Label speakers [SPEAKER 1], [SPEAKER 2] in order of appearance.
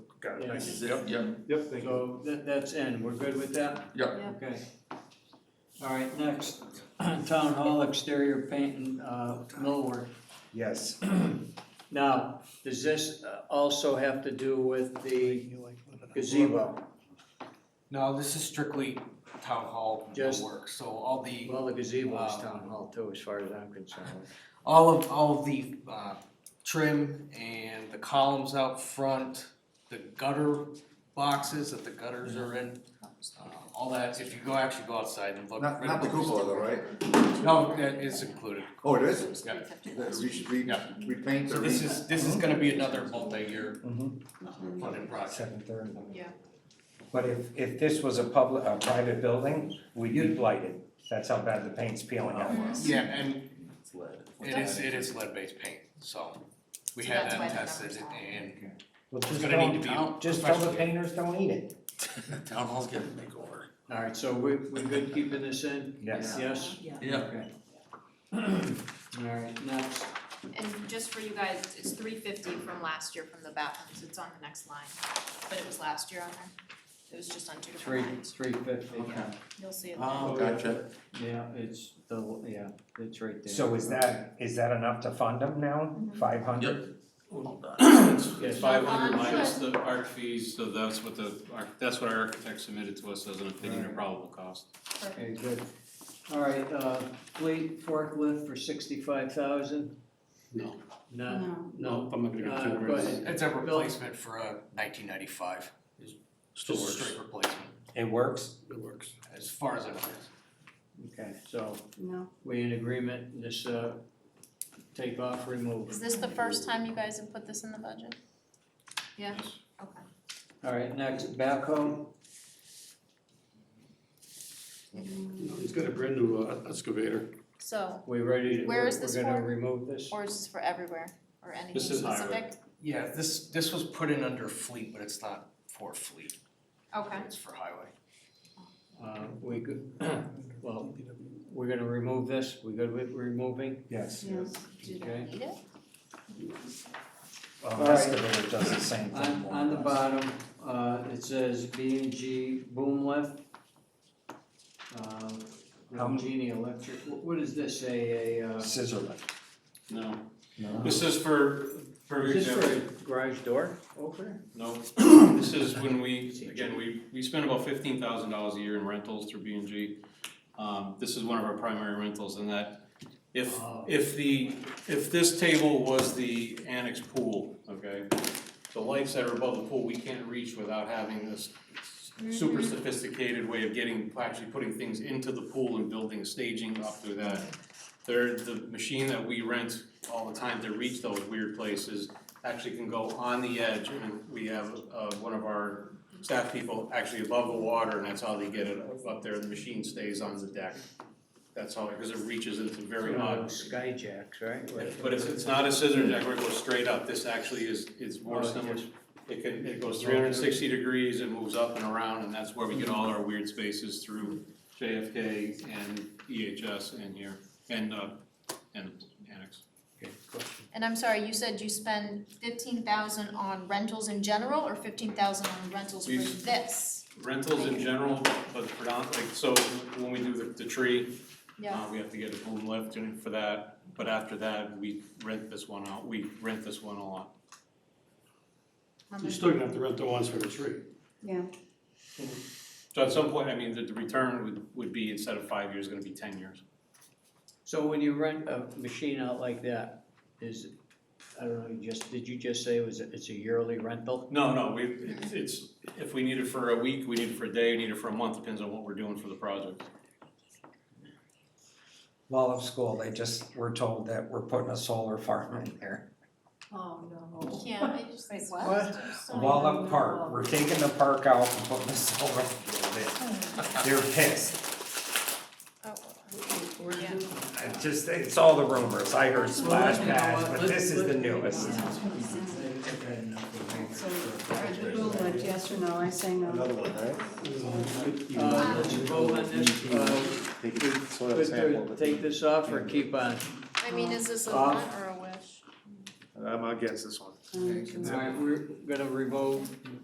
[SPEAKER 1] Got it,
[SPEAKER 2] Yeah.
[SPEAKER 1] thank
[SPEAKER 2] This
[SPEAKER 1] you. Yep, yep,
[SPEAKER 3] Yep, thank you.
[SPEAKER 2] So that, that's in, we're good with that?
[SPEAKER 1] yep.
[SPEAKER 4] Yeah.
[SPEAKER 2] Okay. All right, next, town hall exterior paint and, uh, millwork.
[SPEAKER 3] Yes.
[SPEAKER 2] Now, does this uh, also have to do with the gazebo?
[SPEAKER 5] No, this is strictly town hall
[SPEAKER 2] Just-
[SPEAKER 5] work, so all the,
[SPEAKER 2] Well, the gazebo is town hall too, as far as I'm concerned.
[SPEAKER 5] all of, all of the, uh, trim and the columns out front, the gutter boxes that the gutters are in, uh, all that, if you go, actually go outside and look.
[SPEAKER 6] Not, not the cupola though, right?
[SPEAKER 5] No, that is included.
[SPEAKER 6] Oh, it is?
[SPEAKER 5] Yeah.
[SPEAKER 6] That We should re,
[SPEAKER 5] Yeah.
[SPEAKER 6] repaint
[SPEAKER 5] So
[SPEAKER 6] the.
[SPEAKER 5] this is, this is gonna be another multi-year
[SPEAKER 3] Mhm.
[SPEAKER 4] Mm-hmm.
[SPEAKER 5] funded project.
[SPEAKER 3] Seven thirty.
[SPEAKER 4] Yeah.
[SPEAKER 3] But if, if this was a public, a private building, we'd be blighted. That's how bad the paint's peeling off.
[SPEAKER 5] Yeah, and
[SPEAKER 6] It's lead.
[SPEAKER 5] it is, it is lead-based paint, so we
[SPEAKER 4] So
[SPEAKER 5] had
[SPEAKER 4] that's why
[SPEAKER 5] that
[SPEAKER 4] the
[SPEAKER 5] tested
[SPEAKER 4] numbers are.
[SPEAKER 5] and
[SPEAKER 3] Well,
[SPEAKER 5] It's
[SPEAKER 3] just
[SPEAKER 5] gonna need
[SPEAKER 3] don't-
[SPEAKER 5] to be out
[SPEAKER 3] Just tell the
[SPEAKER 5] professionally.
[SPEAKER 3] painters, don't eat it.
[SPEAKER 1] Town hall's getting a makeover.
[SPEAKER 2] All right, so we, we good keeping this in?
[SPEAKER 3] Yes.
[SPEAKER 2] Yes?
[SPEAKER 1] Yeah.
[SPEAKER 2] Okay. All right, next,
[SPEAKER 4] And just for you guys, it's three fifty from last year from the bathrooms, it's on the next line, but it was last year on there. It was just on two
[SPEAKER 2] three,
[SPEAKER 4] different lines,
[SPEAKER 2] three fifty.
[SPEAKER 4] you'll see it.
[SPEAKER 7] Uh,
[SPEAKER 1] Oh, gotcha.
[SPEAKER 2] Yeah, it's the, yeah, it's right there.
[SPEAKER 3] So is that, is that enough to fund them now?
[SPEAKER 4] Mhm.
[SPEAKER 3] Five hundred?
[SPEAKER 1] Well done.
[SPEAKER 2] Yes.
[SPEAKER 7] Five hundred
[SPEAKER 4] Bond
[SPEAKER 7] minus the art fees, so that's what the, arch- that's what our architect submitted to us as an opinion of probable cost.
[SPEAKER 4] Perfect.
[SPEAKER 2] Okay, good. All right, uh, fleet forklift for sixty-five thousand?
[SPEAKER 7] No.
[SPEAKER 2] No, no.
[SPEAKER 7] I'm not gonna
[SPEAKER 2] Uh,
[SPEAKER 7] get too
[SPEAKER 2] go
[SPEAKER 7] worried.
[SPEAKER 2] ahead.
[SPEAKER 5] It's a replacement for a nineteen ninety-five, just a straight replacement,
[SPEAKER 3] It works?
[SPEAKER 1] It works.
[SPEAKER 5] as far as I'm concerned.
[SPEAKER 2] Okay, so
[SPEAKER 4] No.
[SPEAKER 2] we in agreement, this, uh, take off, remove.
[SPEAKER 8] Is this the first time you guys have put this in the budget?
[SPEAKER 4] Yeah,
[SPEAKER 7] Yes.
[SPEAKER 4] okay.
[SPEAKER 2] All right, next, backhoe,
[SPEAKER 1] He's got a brand new uh, excavator.
[SPEAKER 8] So,
[SPEAKER 2] we ready to,
[SPEAKER 8] Where
[SPEAKER 2] we're
[SPEAKER 8] is this
[SPEAKER 2] gonna
[SPEAKER 8] for?
[SPEAKER 2] remove this?
[SPEAKER 8] or is this for everywhere or anything
[SPEAKER 7] This is
[SPEAKER 8] specific?
[SPEAKER 7] highway.
[SPEAKER 5] Yeah, this, this was put in under fleet, but it's not for fleet,
[SPEAKER 4] Okay,
[SPEAKER 5] it's for highway.
[SPEAKER 2] Uh, we good, well, we're gonna remove this, we good with removing?
[SPEAKER 3] Yes.
[SPEAKER 4] do they need it?
[SPEAKER 3] Well,
[SPEAKER 2] All right.
[SPEAKER 3] excavator does the same thing.
[SPEAKER 2] On,
[SPEAKER 3] more
[SPEAKER 2] on the
[SPEAKER 3] or less.
[SPEAKER 2] bottom, uh, it says B and G boom lift. Uh,
[SPEAKER 3] How m-
[SPEAKER 2] Genie Electric, Wh- what is this, a, a, uh,
[SPEAKER 3] Scissor lift.
[SPEAKER 7] No,
[SPEAKER 3] No.
[SPEAKER 7] this is for, for
[SPEAKER 2] is this for
[SPEAKER 7] example,
[SPEAKER 2] a garage door opener?
[SPEAKER 7] no, this is when we, again, we, we spend about fifteen thousand dollars a year in rentals through B and G. Um, this is one of our primary rentals and that, if,
[SPEAKER 2] Oh.
[SPEAKER 7] if the, if this table was the annex pool, okay? The lights that are above the pool, we can't reach without having this
[SPEAKER 8] Mm-hmm.
[SPEAKER 7] super sophisticated way of getting, actually putting things into the pool and building staging up through that. There, the machine that we rent all the time to reach those weird places actually can go on the edge and we have uh one of our staff people actually above the water and that's how they get it up there, the machine stays on the deck. That's how, because it reaches into very
[SPEAKER 2] One of
[SPEAKER 7] odd.
[SPEAKER 2] those Sky jacks, right? Where-
[SPEAKER 7] But it's it's not a scissor jack where it goes straight up, this actually is is
[SPEAKER 2] Oh,
[SPEAKER 7] more
[SPEAKER 2] it
[SPEAKER 7] similar.
[SPEAKER 2] just-
[SPEAKER 7] It can, it goes three hundred and sixty degrees and moves up and around, and that's where we get all our weird spaces through JFK and EHS and here, and uh, and annex.
[SPEAKER 2] Okay, cool.
[SPEAKER 8] And I'm sorry, you said you spend fifteen thousand on rentals in general or fifteen thousand on rentals for
[SPEAKER 7] We've-
[SPEAKER 8] this?
[SPEAKER 7] Rentals in general, but predominantly, so when we do the the tree, uh,
[SPEAKER 8] Yeah,
[SPEAKER 7] we have to get a boom lift and for that, but after that, we rent this one out, we rent this one a lot.
[SPEAKER 8] how
[SPEAKER 9] You're
[SPEAKER 8] much?
[SPEAKER 9] still gonna have to rent the ones for the tree.
[SPEAKER 7] So at some point, I mean, the the return would would be instead of five years, gonna be ten years.
[SPEAKER 2] So when you rent a machine out like that, is, I don't know, you just, did you just say it was, a- it's a yearly rental?
[SPEAKER 7] No, no, we, it's- it's, if we need it for a week, we need it for a day, we need it for a month, depends on what we're doing for the project.
[SPEAKER 3] Wall of school, they just were told that we're putting a solar farm in there.
[SPEAKER 4] Oh,
[SPEAKER 8] You
[SPEAKER 4] no.
[SPEAKER 8] can't, I just.
[SPEAKER 4] Wait,
[SPEAKER 8] what?
[SPEAKER 3] Wall up park, we're taking the park out and putting the solar field in. They're pissed.
[SPEAKER 8] Oh,
[SPEAKER 4] Yeah.
[SPEAKER 3] I just, it's all the rumors. I heard splash pads, but this is the newest.
[SPEAKER 10] yes or no, I say no.
[SPEAKER 6] Another one, right?
[SPEAKER 2] Uh, let's vote on this, uh,
[SPEAKER 6] Take
[SPEAKER 2] Could-
[SPEAKER 6] soil
[SPEAKER 2] could
[SPEAKER 6] sample,
[SPEAKER 2] they
[SPEAKER 6] but-
[SPEAKER 2] take this off or keep on?
[SPEAKER 8] I mean, is this a
[SPEAKER 2] Um,
[SPEAKER 8] want or a wish?
[SPEAKER 6] I'm against this one.
[SPEAKER 2] All right, we're gonna revoke